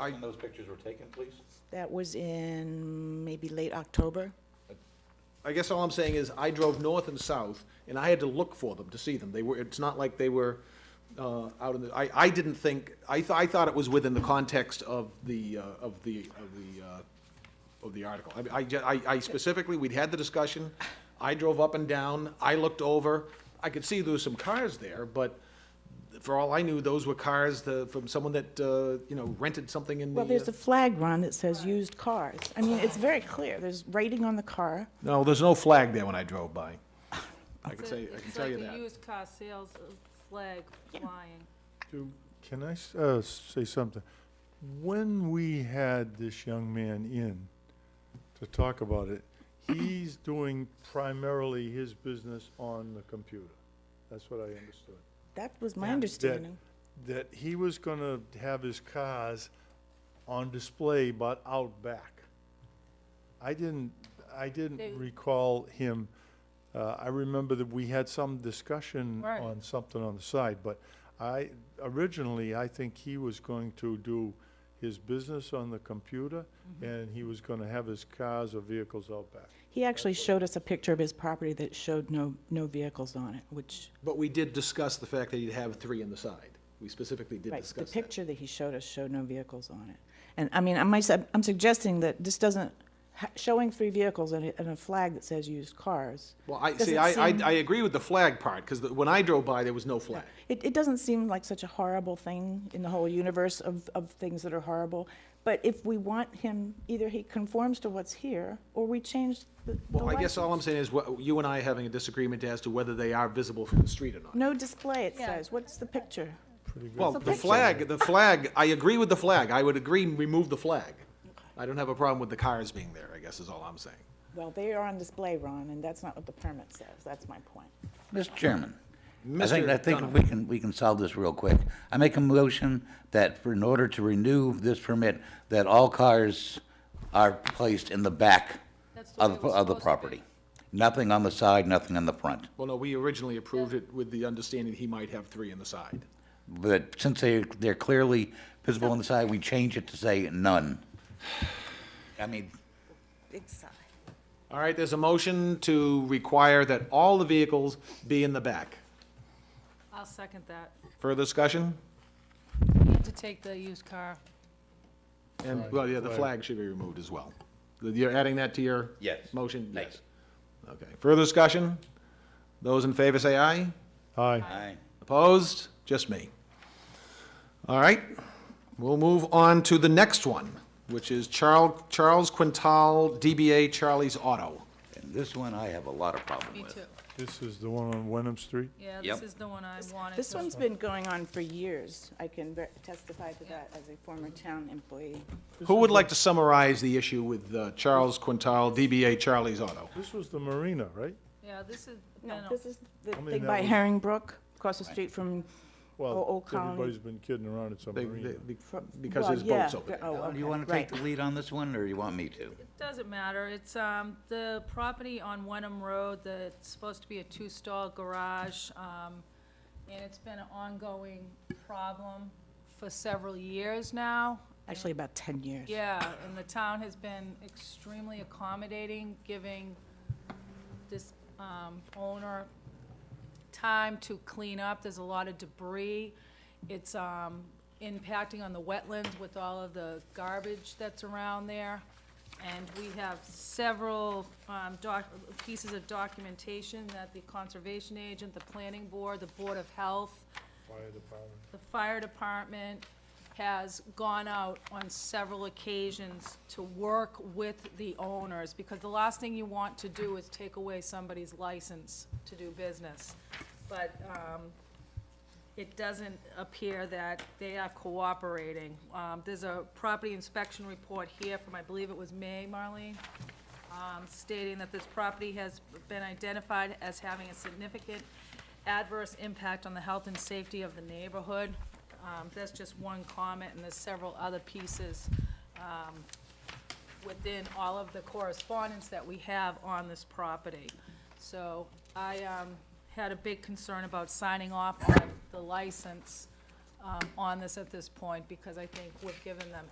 When those pictures were taken, please? That was in maybe late October. I guess all I'm saying is I drove north and south, and I had to look for them to see them. They were, it's not like they were uh, out in the, I, I didn't think, I, th- I thought it was within the context of the, uh, of the, of the, uh, of the article. I- I, ju- I- I specifically, we'd had the discussion, I drove up and down, I looked over, I could see there was some cars there, but for all I knew, those were cars the- from someone that, uh, you know, rented something in the. Well, there's uh, a flag, Ron, that says used cars. I mean, it's very clear. There's rating on the car. uh, No, there's no flag there when I drove by. I can say, I can tell you It's like that. a used car sales flag flying. Can I s- uh, say something? When we had this young man in to talk about it, he's doing primarily his business on the computer. That's what I understood. That was my Yeah. understanding. That he was gonna have his cars on display but out back. I didn't, I They- didn't recall him, uh, I remember that we had some discussion Right. on something on the side, but I, originally, I think he was going to do his business on the computer Mm-hmm. and he was gonna have his cars or vehicles out back. He actually showed us a picture of his property that showed no, no vehicles on it, which, But we did discuss the fact that he'd have three in the side. We specifically did right, the discuss that. picture that he showed us showed no vehicles on it. And, I mean, I'm, I'm suggesting that this doesn't, ha- showing three vehicles and a, and a flag that says used cars. Well, I, doesn't see, I, I, seem- I agree with the flag part, because when I drove by, there was no flag. It, it doesn't seem like such a horrible thing in the whole universe of, of things that are horrible. But if we want him, either he conforms to what's here, or we change the, the Well, I guess all I'm license. saying is, what- you and I are having a disagreement as to whether they are visible from the street or not. No display, it Yeah. says. What's the picture? Pretty good. Well, the flag, the flag, I agree with the flag. I would agree, remove the flag. I don't have a problem with the cars being there, I guess is all I'm saying. Well, they are on display, Ron, and that's not what the permit says. That's my point. Mr. Chairman, I think, Mr. I think Dunham. we can, we can solve this real quick. I make a motion that for, in order to renew this permit, that all cars are placed in the back That's the way of, it was of the supposed to be. property. Nothing on the side, nothing on the front. Well, no, we originally approved it with the understanding he might have three in the side. But since they, they're clearly visible on the side, we change it to say none. I mean, All right, there's a motion to require that all the vehicles be in the back. I'll second that. Further discussion? You have to take the used car. And, well, yeah, the flag should be removed as well. You're adding that to your? Yes. Motion? Thank Yes. Okay. Further discussion? Those in favor say aye. Aye. I, Opposed? Just me. All right, we'll move on to the next one, which is Charles, Charles Quintal, DBA Charlie's Auto. and this one I have a lot of problem Me with. too. This is the one on Wenham Street? Yeah, this Yep. is the one I wanted. This to- one's been going on for years. I can ver- testify to that as a former town employee. Who would like to summarize the issue with uh, Charles Quintal, DBA Charlie's Auto? This was the marina, right? Yeah, this is, been No, a- this is the mean, thing that by was- Herringbrook, across the street from, Oh, Well, Old Colony. everybody's been kidding around, it's a They- marina. they- be- from. Because well, his boat's yeah, over there. Oh, Do okay, you want to take right. the lead on this one, or you want me to? doesn't matter. It's, um, the property on Wenham Road that's supposed to be a two-stall garage, um, and it's been an ongoing problem for several years now. Actually, about 10 years. Yeah, and the town has been extremely accommodating, giving this um, owner time to clean up. There's a lot of debris. It's um, impacting on the wetlands with all of the garbage that's around there. And we have several um, doc, pieces of documentation that the conservation agent, the planning board, the board of health, the fire department has gone out on several occasions to work with the owners, because the last thing you want to do is take away somebody's license to do business. But, um, it doesn't appear that they are cooperating. Um, there's a property inspection report here from, I believe it was May, Marlene? um, stating that this property has been identified as having a significant adverse impact on the health and safety of the neighborhood. Um, That's just one comment, and there's several other pieces um, within all of the correspondence that we have on this property. So I um, had a big concern about signing off on the license um, on this at this point, because I think we've given them